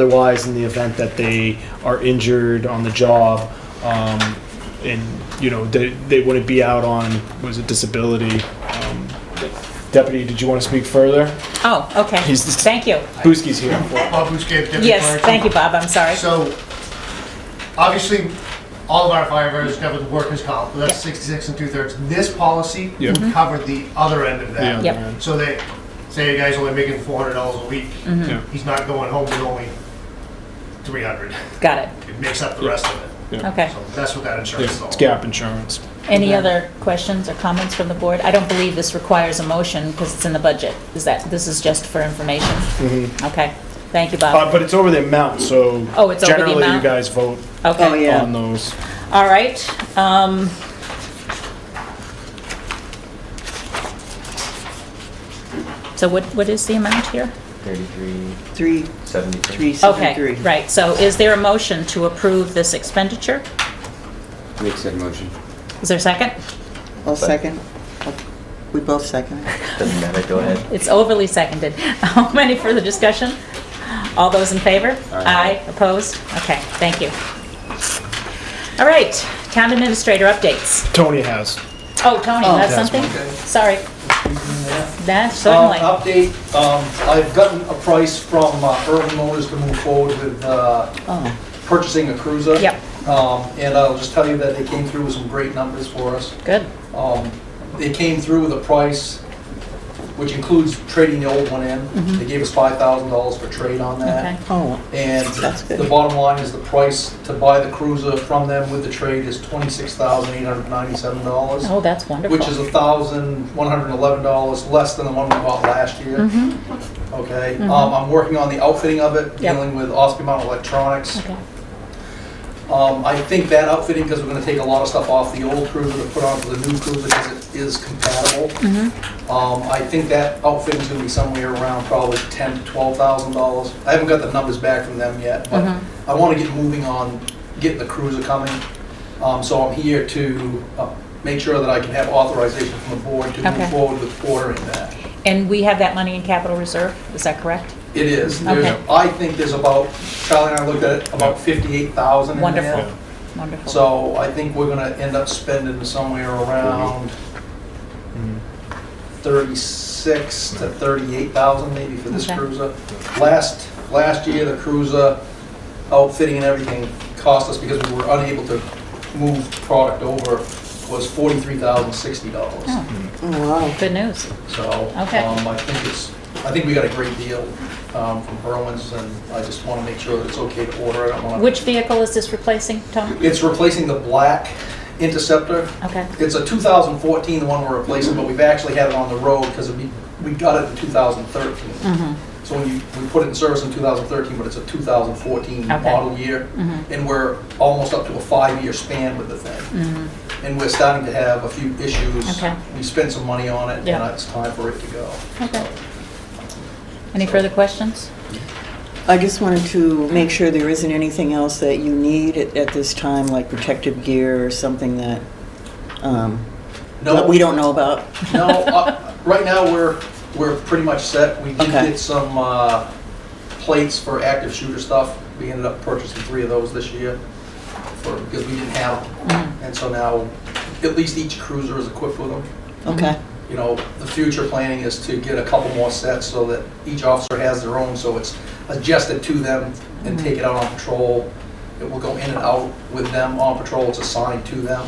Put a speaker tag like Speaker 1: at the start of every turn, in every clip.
Speaker 1: Otherwise, in the event that they are injured on the job, um, and, you know, they, they wouldn't be out on, was it disability? Um, Deputy, did you want to speak further?
Speaker 2: Oh, okay.
Speaker 1: He's the-
Speaker 2: Thank you.
Speaker 1: Buski's here.
Speaker 3: Bob Buskey, Deputy Fire
Speaker 2: Yes,
Speaker 3: Chief.
Speaker 2: thank you, Bob, I'm sorry.
Speaker 3: So, obviously, all of our firefighters cover the workers' comp, but that's 66 and two-thirds. This policy
Speaker 1: Yeah.
Speaker 3: would
Speaker 2: Mm-hmm.
Speaker 3: cover the other end of that.
Speaker 2: Yep.
Speaker 3: So that, say a guy's only making $400 a week,
Speaker 2: Mm-hmm.
Speaker 1: Yeah.
Speaker 2: Hmm.
Speaker 3: he's not going home with only 300.
Speaker 2: Got
Speaker 3: It makes up the rest of it.
Speaker 2: it, okay.
Speaker 3: So that's what that
Speaker 1: Yeah,
Speaker 3: insurance is all
Speaker 1: It's
Speaker 3: about.
Speaker 1: gap insurance.
Speaker 2: Any other questions or comments from the board? I don't believe this requires a motion because it's in the budget. Is that, this is just for information? Okay, thank you, Bob.
Speaker 1: Uh, but it's over the amount, so.
Speaker 2: Oh, it's over the
Speaker 1: Generally, you
Speaker 2: amount?
Speaker 1: guys vote
Speaker 4: Oh,
Speaker 2: Okay,
Speaker 4: yeah.
Speaker 1: on those.
Speaker 2: all right. um, So what, what is the amount here?
Speaker 5: 33,
Speaker 4: Three,
Speaker 5: 73.
Speaker 4: three, seven, three.
Speaker 2: Okay, right, so is there a motion to approve this expenditure?
Speaker 5: Make said motion.
Speaker 2: Is there a second?
Speaker 4: I'll second. We both second it.
Speaker 5: Doesn't matter, go ahead.
Speaker 2: It's overly seconded. Um, Any further discussion? All those in favor?
Speaker 5: Aye.
Speaker 2: Opposed? Okay, thank you. All right, town administrator updates.
Speaker 1: Tony has.
Speaker 2: Oh, Tony, you have
Speaker 1: that's
Speaker 2: something? Sorry. That's
Speaker 6: Um,
Speaker 2: certainly.
Speaker 6: Update, um, I've gotten a price from uh, Urban Motors to move forward with uh,
Speaker 4: Oh,
Speaker 6: purchasing a cruiser.
Speaker 2: Yep.
Speaker 6: Um, And I'll just tell you that they came through with some great numbers for us.
Speaker 2: Good.
Speaker 6: Um, They came through with a price which includes trading the old one in. They gave us $5,000 for trade on
Speaker 2: Mm-hmm. Okay.
Speaker 6: that.
Speaker 4: oh,
Speaker 6: And
Speaker 4: That's good.
Speaker 6: the bottom line is the price to buy the cruiser from them with the trade is $26,897
Speaker 2: Oh, that's wonderful.
Speaker 6: which is thousand one hundred and eleven dollars less than the one we bought last year. Okay, um, I'm working on the outfitting of it,
Speaker 2: Mm-hmm. Yep.
Speaker 6: dealing with Osby Mountain Electronics.
Speaker 2: Okay.
Speaker 6: Um, I think that outfitting, because we're gonna take a lot of stuff off the old cruiser to put onto the new cruiser, because it is compatible.
Speaker 2: Mm-hmm.
Speaker 6: Um, I think that outfitting's gonna be somewhere around probably ten to twelve thousand dollars. I haven't got the numbers back from them yet, but
Speaker 2: Mm-hmm.
Speaker 6: I wanna get moving on getting the cruiser coming. Um, so I'm here to, uh, make sure that I can have authorization from the board to
Speaker 2: Okay.
Speaker 6: move forward with ordering that.
Speaker 2: And we have that money in capital reserve, is that correct?
Speaker 6: It is,
Speaker 2: Okay.
Speaker 6: there's, I think there's about, Charlie and I looked at it, about fifty-eight thousand in there.
Speaker 2: Wonderful, wonderful.
Speaker 6: So I think we're gonna end up spending somewhere around thirty-six to thirty-eight thousand maybe for this
Speaker 2: Okay.
Speaker 6: cruiser. Last, last year, the cruiser outfitting and everything cost us, because we were unable to move product over, was forty-three thousand sixty dollars.
Speaker 2: Oh,
Speaker 4: wow.
Speaker 2: Good news.
Speaker 6: So,
Speaker 2: Okay.
Speaker 6: um, I think it's, I think we got a great deal, um, from Berwin's, and I just wanna make sure that it's okay to order, I don't wanna.
Speaker 2: Which vehicle is this replacing, Tom?
Speaker 6: It's replacing the black Interceptor.
Speaker 2: Okay,
Speaker 6: It's a 2014, the one we're replacing, but we've actually had it on the road because we, we got it in 2013.
Speaker 2: Mm-hmm.
Speaker 6: So when you, we put it in service in 2013, but it's a 2014
Speaker 2: Okay. Mm-hmm.
Speaker 6: model year. And we're almost up to a five-year span with the
Speaker 2: Mm-hmm.
Speaker 6: thing. And we're starting to have a few issues.
Speaker 2: Okay.
Speaker 6: We spent some money on it, and
Speaker 2: Yeah.
Speaker 6: it's time for it to go.
Speaker 2: okay. Any further questions?
Speaker 4: I just wanted to make sure there isn't anything else that you need at, at this time, like protective gear or something that, um,
Speaker 6: No,
Speaker 4: that we don't know about.
Speaker 6: No, uh, right now, we're, we're pretty much set. We did
Speaker 4: Okay.
Speaker 6: get some uh, plates for active shooter stuff. We ended up purchasing three of those this year for, because we didn't have them. And so now, at least each cruiser is equipped with them.
Speaker 4: Okay,
Speaker 6: You know, the future planning is to get a couple more sets so that each officer has their own, so it's adjusted to them and take it out on patrol. It will go in and out with them on patrol, it's assigned to them.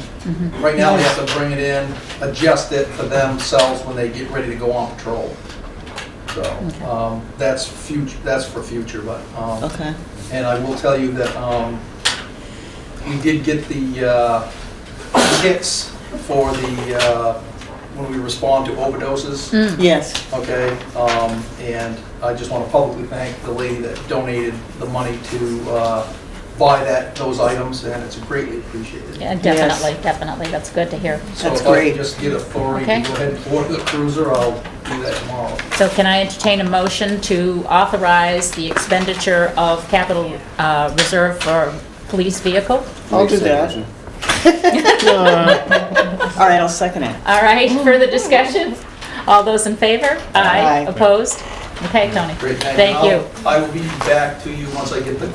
Speaker 6: Right now, they have to bring it in, adjust it for themselves when they get ready to go on patrol. So, um, that's future, that's for future, but, um,
Speaker 4: okay.
Speaker 6: and I will tell you that um, we did get the uh, kits for the, uh, when we respond to overdoses,
Speaker 4: Hmm. Yes,
Speaker 6: okay? Um, And I just want to publicly thank the lady that donated the money to uh, buy that, those items, and it's greatly appreciated.
Speaker 2: Yeah, definitely, definitely, that's good to hear.
Speaker 4: that's
Speaker 6: So if I
Speaker 4: great.
Speaker 6: can just get authority
Speaker 2: Okay.
Speaker 6: to go ahead and order the cruiser, I'll do that tomorrow.
Speaker 2: So can I entertain a motion to authorize the expenditure of capital uh, reserve for police vehicle?
Speaker 4: I'll
Speaker 5: Make
Speaker 4: do
Speaker 5: said
Speaker 4: that.
Speaker 5: motion.
Speaker 4: All right, I'll second it.
Speaker 2: All right, further discussion? All those in favor?
Speaker 4: Aye.
Speaker 2: Opposed? Okay, Tony?
Speaker 6: Great,
Speaker 2: Thank you.
Speaker 6: I'll- I will be back to you once I get the